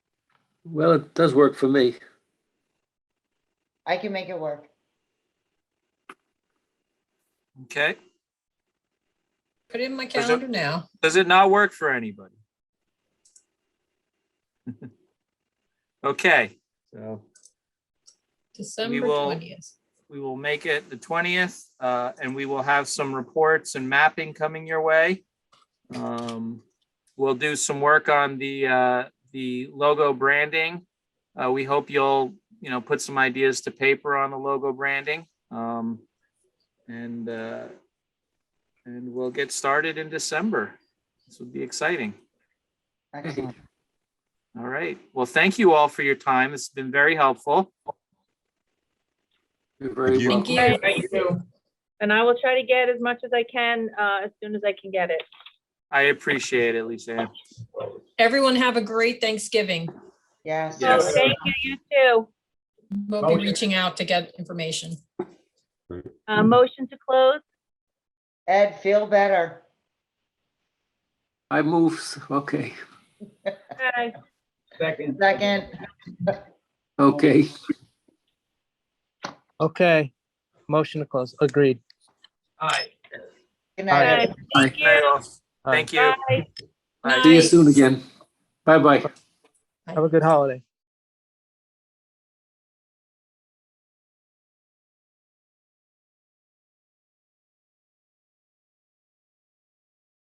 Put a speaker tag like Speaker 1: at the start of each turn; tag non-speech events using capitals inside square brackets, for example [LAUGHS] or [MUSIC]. Speaker 1: Well, it does work for me.
Speaker 2: I can make it work.
Speaker 3: Okay,
Speaker 4: Put it in my
Speaker 3: Does it-
Speaker 4: calendar now.
Speaker 3: does it not work for anybody? [LAUGHS] Okay, so
Speaker 4: December
Speaker 3: will-
Speaker 4: twentieth.
Speaker 3: we will make it the twentieth, uh, and we will have some reports and mapping coming your way. Um, we'll do some work on the, uh, the logo branding. Uh, we hope you'll, you know, put some ideas to paper on the logo branding. Um, and, uh, and we'll get started in December. This will be exciting.
Speaker 2: Excellent.
Speaker 3: All right. Well, thank you all for your time. It's been very helpful.
Speaker 1: You're very
Speaker 5: you.
Speaker 1: welcome.
Speaker 4: Thank you.
Speaker 6: Thank you. And I will try to get as much as I can, uh, as soon as I can get it.
Speaker 3: I appreciate it, Lisa. Ann.
Speaker 4: Everyone have a great Thanksgiving.
Speaker 2: Yes.
Speaker 6: So
Speaker 3: Yes.
Speaker 6: thank you, you too.
Speaker 4: We'll be reaching out to get information.
Speaker 6: Uh, motion to close?
Speaker 2: Ed, feel better.
Speaker 1: I move, s- okay,
Speaker 6: Aye.
Speaker 2: Second,
Speaker 1: okay.
Speaker 7: Okay, motion to close, agreed.
Speaker 2: good
Speaker 7: Aye.
Speaker 2: night.
Speaker 6: Aye. Thank
Speaker 3: Bye,
Speaker 6: you.
Speaker 3: all. Thank you.
Speaker 6: Bye.
Speaker 3: Bye.
Speaker 1: See you
Speaker 4: Nice.
Speaker 1: soon again. Bye-bye.
Speaker 7: Have a good holiday.